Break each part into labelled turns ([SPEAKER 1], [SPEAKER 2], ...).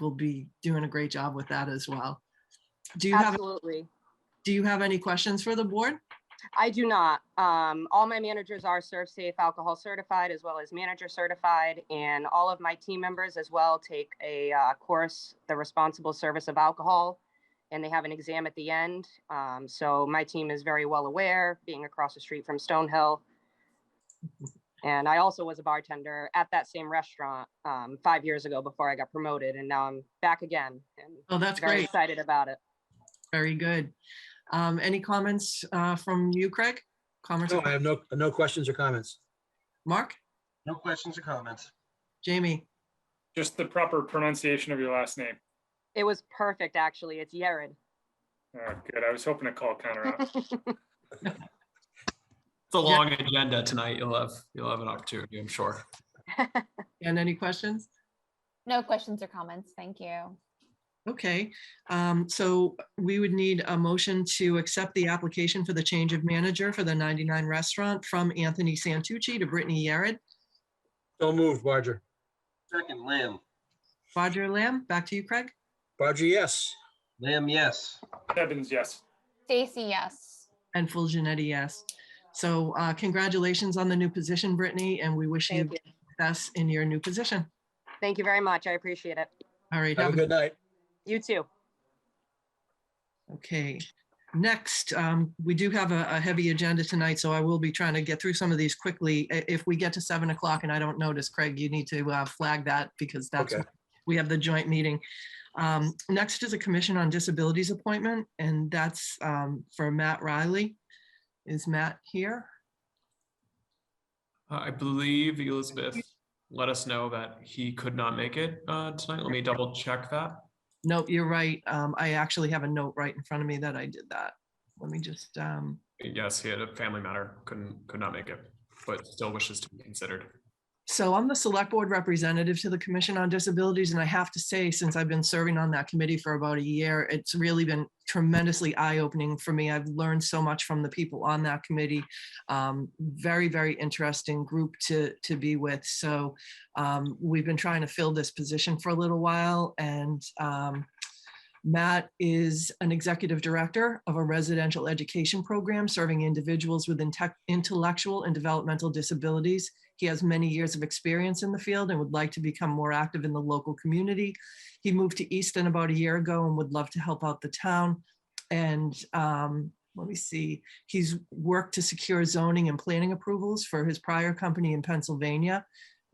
[SPEAKER 1] will be doing a great job with that as well. Do you have,
[SPEAKER 2] Absolutely.
[SPEAKER 1] do you have any questions for the board?
[SPEAKER 2] I do not. Um, all my managers are serve safe alcohol certified as well as manager certified and all of my team members as well take a uh, course, the responsible service of alcohol. And they have an exam at the end. Um, so my team is very well aware, being across the street from Stonehill. And I also was a bartender at that same restaurant um, five years ago before I got promoted and now I'm back again and
[SPEAKER 1] Oh, that's
[SPEAKER 2] very
[SPEAKER 1] great.
[SPEAKER 2] excited about it.
[SPEAKER 1] Very good. Um, any comments, uh, from you, Craig? Comments,
[SPEAKER 3] No, I have no, no questions or comments.
[SPEAKER 1] Mark,
[SPEAKER 4] No questions or comments.
[SPEAKER 1] Jamie?
[SPEAKER 5] Just the proper pronunciation of your last name.
[SPEAKER 2] It was perfect, actually. It's Yared.
[SPEAKER 5] Oh, good. I was hoping to call Connor out.
[SPEAKER 6] It's a long agenda tonight. You'll have, you'll have an opportunity, I'm sure.
[SPEAKER 1] And any questions?
[SPEAKER 7] No questions or comments. Thank you.
[SPEAKER 1] Okay, um, so we would need a motion to accept the application for the change of manager for the 99 Restaurant from Anthony Santucci to Brittany Yared.
[SPEAKER 3] So moved, Barger.
[SPEAKER 4] Second, Lamb.
[SPEAKER 1] Roger Lamb, back to you, Craig.
[SPEAKER 3] Barger, yes.
[SPEAKER 4] Lamb, yes.
[SPEAKER 5] Evans, yes.
[SPEAKER 7] Stacy, yes.
[SPEAKER 1] And Full Janetti, yes. So uh, congratulations on the new position, Brittany, and we wish you
[SPEAKER 2] Thank you.
[SPEAKER 1] success in your new position.
[SPEAKER 2] Thank you very much. I appreciate it.
[SPEAKER 1] All right,
[SPEAKER 3] Have a good night.
[SPEAKER 2] You too.
[SPEAKER 1] Okay, next, um, we do have a, a heavy agenda tonight, so I will be trying to get through some of these quickly. I- If we get to seven o'clock and I don't notice, Craig, you need to uh, flag that because that's,
[SPEAKER 3] Okay.
[SPEAKER 1] we have the joint meeting. Um, next is a Commission on Disabilities appointment, and that's, um, for Matt Riley. Is Matt here?
[SPEAKER 6] Uh, I believe Elizabeth let us know that he could not make it uh, tonight. Let me double check that.
[SPEAKER 1] Nope, you're right. Um, I actually have a note right in front of me that I did that. Let me just, um,
[SPEAKER 6] Yes, he had a family matter, couldn't, could not make it, but still wishes to be considered.
[SPEAKER 1] So I'm the select board representative to the Commission on Disabilities, and I have to say, since I've been serving on that committee for about a year, it's really been tremendously eye-opening for me. I've learned so much from the people on that committee. Um, very, very interesting group to to be with. So um, we've been trying to fill this position for a little while, and um, Matt is an executive director of a residential education program serving individuals with inte- intellectual and developmental disabilities. He has many years of experience in the field and would like to become more active in the local community. He moved to Easton about a year ago and would love to help out the town. And um, let me see, he's worked to secure zoning and planning approvals for his prior company in Pennsylvania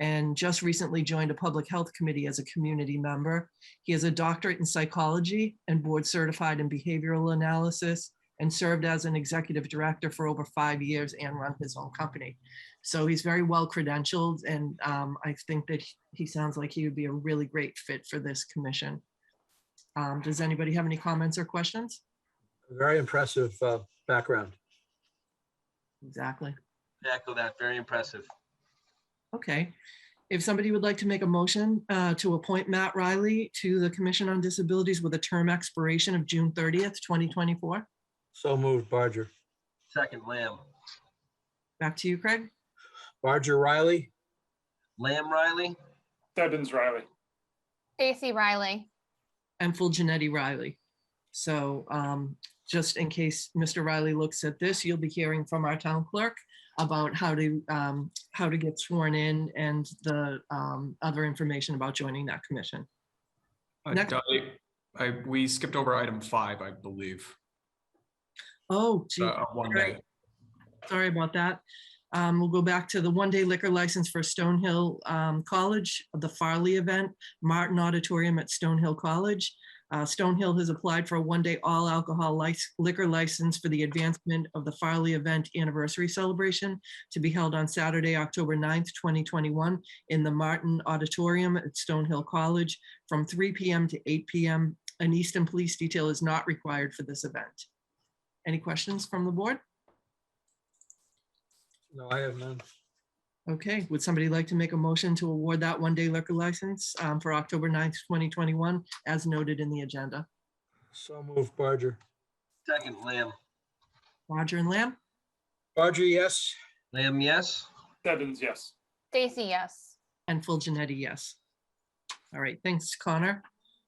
[SPEAKER 1] and just recently joined a public health committee as a community member. He has a doctorate in psychology and board certified in behavioral analysis and served as an executive director for over five years and run his own company. So he's very well credentialed and um, I think that he- he sounds like he would be a really great fit for this commission. Um, Does anybody have any comments or questions?
[SPEAKER 3] Very impressive uh, background.
[SPEAKER 1] Exactly.
[SPEAKER 4] Echo that. Very impressive.
[SPEAKER 1] Okay. If somebody would like to make a motion uh, to appoint Matt Riley to the Commission on Disabilities with a term expiration of June 30th, 2024.
[SPEAKER 3] So moved, Barger.
[SPEAKER 4] Second, Lamb.
[SPEAKER 1] Back to you, Craig.
[SPEAKER 3] Barger Riley,
[SPEAKER 4] Lamb, Riley.
[SPEAKER 5] Evans, Riley.
[SPEAKER 7] Stacy Riley,
[SPEAKER 1] and full Janetti Riley. So um, just in case Mr. Riley looks at this, you'll be hearing from our town clerk about how to, um, how to get sworn in and the um, other information about joining that commission.
[SPEAKER 6] Uh,
[SPEAKER 1] Next.
[SPEAKER 6] Dottie, I, we skipped over item five, I believe.
[SPEAKER 1] Oh, gee,
[SPEAKER 6] uh, one day.
[SPEAKER 1] Right. sorry about that. Um, We'll go back to the one-day liquor license for Stonehill um, College, the Farley event, Martin Auditorium at Stonehill College. Uh, Stonehill has applied for a one-day all-alcohol lic- liquor license for the advancement of the Farley event anniversary celebration to be held on Saturday, October 9th, 2021, in the Martin Auditorium at Stonehill College from 3 PM to 8 PM. An Easton Police detail is not required for this event. Any questions from the board?
[SPEAKER 3] no, I have none.
[SPEAKER 1] Okay, would somebody like to make a motion to award that one-day liquor license um, for October 9th, 2021, as noted in the agenda?
[SPEAKER 3] So moved, Barger.
[SPEAKER 4] Second, Lamb.
[SPEAKER 1] Roger and Lamb?
[SPEAKER 3] Barger, yes.
[SPEAKER 4] Lamb, yes.
[SPEAKER 5] Evans, yes.
[SPEAKER 7] Stacy, yes.
[SPEAKER 1] And full Janetti, yes. All right, thanks, Connor.